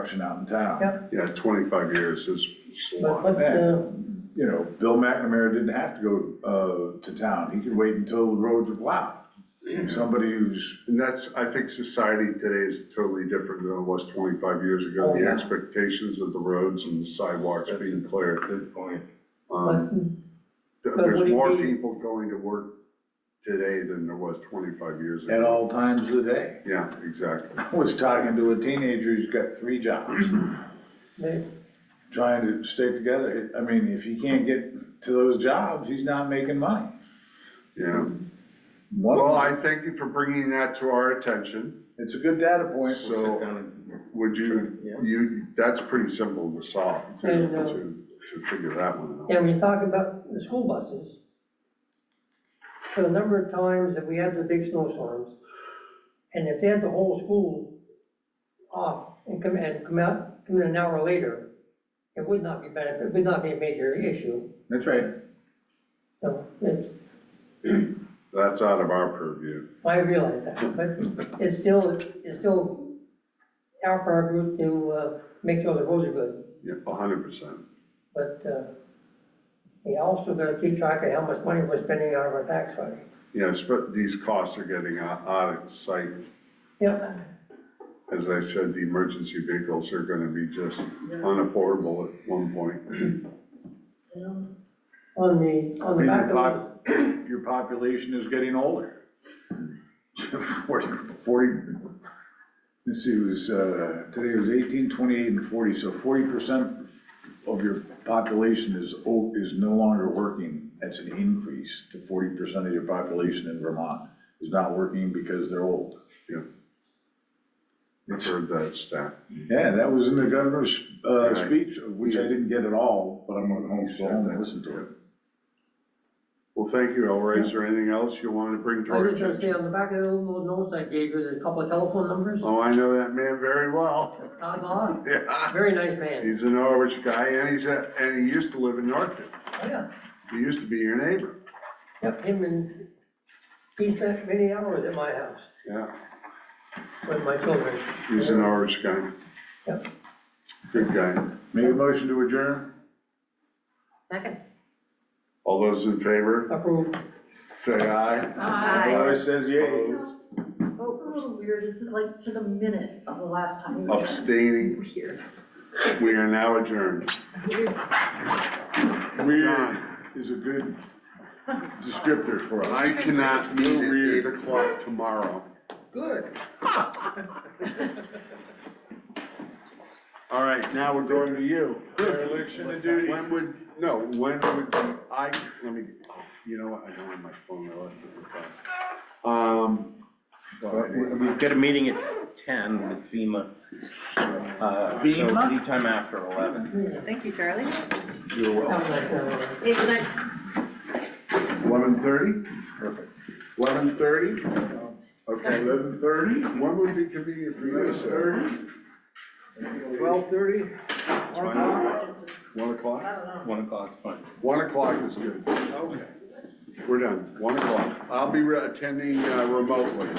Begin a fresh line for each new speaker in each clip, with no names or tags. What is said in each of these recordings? construction out in town.
Yep.
Yeah, twenty-five years is is a
But
lot.
what, uh,
You know, Bill McNamara didn't have to go, uh, to town, he could wait until the roads were plowed. Somebody who's,
And that's, I think society today is totally different than it was twenty-five years ago.
Oh,
The
yeah.
expectations of the roads and the sidewalks
That's
being
a
cleared.
good point.
Um, th-
But
There's
would it
more
be-
people going to work today than there was twenty-five years ago.
at all times of the day.
Yeah, exactly.
I was talking to a teenager who's got three jobs,
they-
trying to stay together. I mean, if he can't get to those jobs, he's not making money.
Yeah.
One,
Well,
of
I
them-
thank you for bringing that to our attention.
it's a good data point.
So-
We'll sit down and-
Would you,
Yeah.
you, that's pretty simple to solve, to,
I know.
to, to figure that one out.
Yeah, when you talk about the school buses, for the number of times that we had the big snowstorms, and if they had the whole school off and come, and come out, come in an hour later, it would not be benefit, it would not be a major issue,
That's right.
so it's,
That's out of our purview.
I realize that, but it's still, it's still our priority to, uh, make sure the roads are good,
Yeah, a hundred percent.
but, uh, we also gotta keep track of how much money we're spending out of our tax money.
Yes, but these costs are getting out, out of sight.
Yeah.
As I said, the emergency vehicles are gonna be just unaffordable at one point.
On the,
I
on the
mean,
back
your
of the.
pop, your population is getting older. Forty, forty, let's see, it was, uh, today was eighteen, twenty-eight and forty, so forty percent of your population is, o- is no longer working. That's an increase to forty percent of your population in Vermont is not working because they're old.
I've heard that stat.
Yeah, that was in the governor's, uh,
Right.
speech, of which I didn't get at all, but I'm gonna home, go home and listen to it.
Well, thank you, Elroy. Is there anything else you wanted to bring to
I
our
was gonna say,
attention?
on the back of the little notes I gave you, there's a couple of telephone numbers.
Oh, I know that man very well.
Todd Law,
Yeah,
very nice man.
he's a Norwich guy and he's a, and he used to live in Norton.
Oh, Yeah.
He used to be your neighbor.
Yep, him and, he spent many hours at my house
Yeah,
with my children.
he's an Norwich guy.
Yep.
Good guy.
Make a motion to adjourn?
Second.
All those in favor,
Approved.
say aye.
Aye.
Elroy says yay.
Opposed?
It's
Oh,
a little weird, it's like to the minute of the last time.
Oh,
we were there.
Abstaining.
We're here.
We are now adjourned.
Weird
John.
is a good descriptor for us.
I cannot meet at eight
Weird.
o'clock tomorrow.
Good.
All right, now we're going to you.
Dereliction of duty.
When would, no, when would you- I, let me, you know what, I don't have my phone, I left it in the car. Um,
But uh, we- We've got a meeting at ten with FEMA. uh, so
FEMA?
Anytime after eleven.
Thank you, Charlie.
you're
That
well,
was nice, uh,
Hey, good night.
eleven thirty?
Perfect.
Eleven thirty? Okay, eleven thirty? When would be convenient for you, sir?
Twelve thirty?
It's fine. One o'clock?
Oh.
One o'clock's fine.
One o'clock is good. Okay. We're done, one o'clock. I'll be re- attending uh, remotely.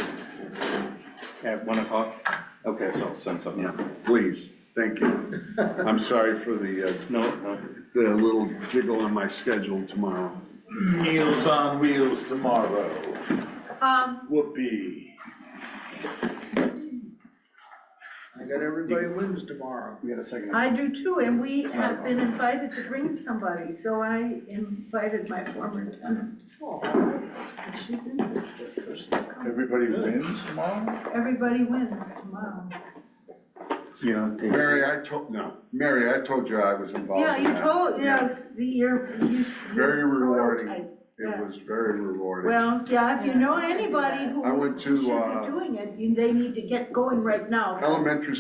At one o'clock? Okay, so I'll send something. out.
Please, thank you. I'm sorry for the, uh,
No, no.
the little jiggle on my schedule tomorrow.
Meals on wheels tomorrow.
Um,
Whoopee.
I got everybody wins tomorrow.
We got a second.
I do too, and we have been invited to bring somebody, so I invited my former tenant. And She's interested, so she'll come.
Everybody wins tomorrow?
Everybody wins tomorrow.
You know, take-
Mary, I told, no, Mary, I told you I was involved
Yeah,
in
you
that.
told, yeah, it's the, your, you.
Very
your
rewarding.
prototype.
It was very rewarding.
Well, yeah, if you know anybody
I
who
went
should
to,
be
uh,
doing it, you- they need to get going right now. 'cause
elementary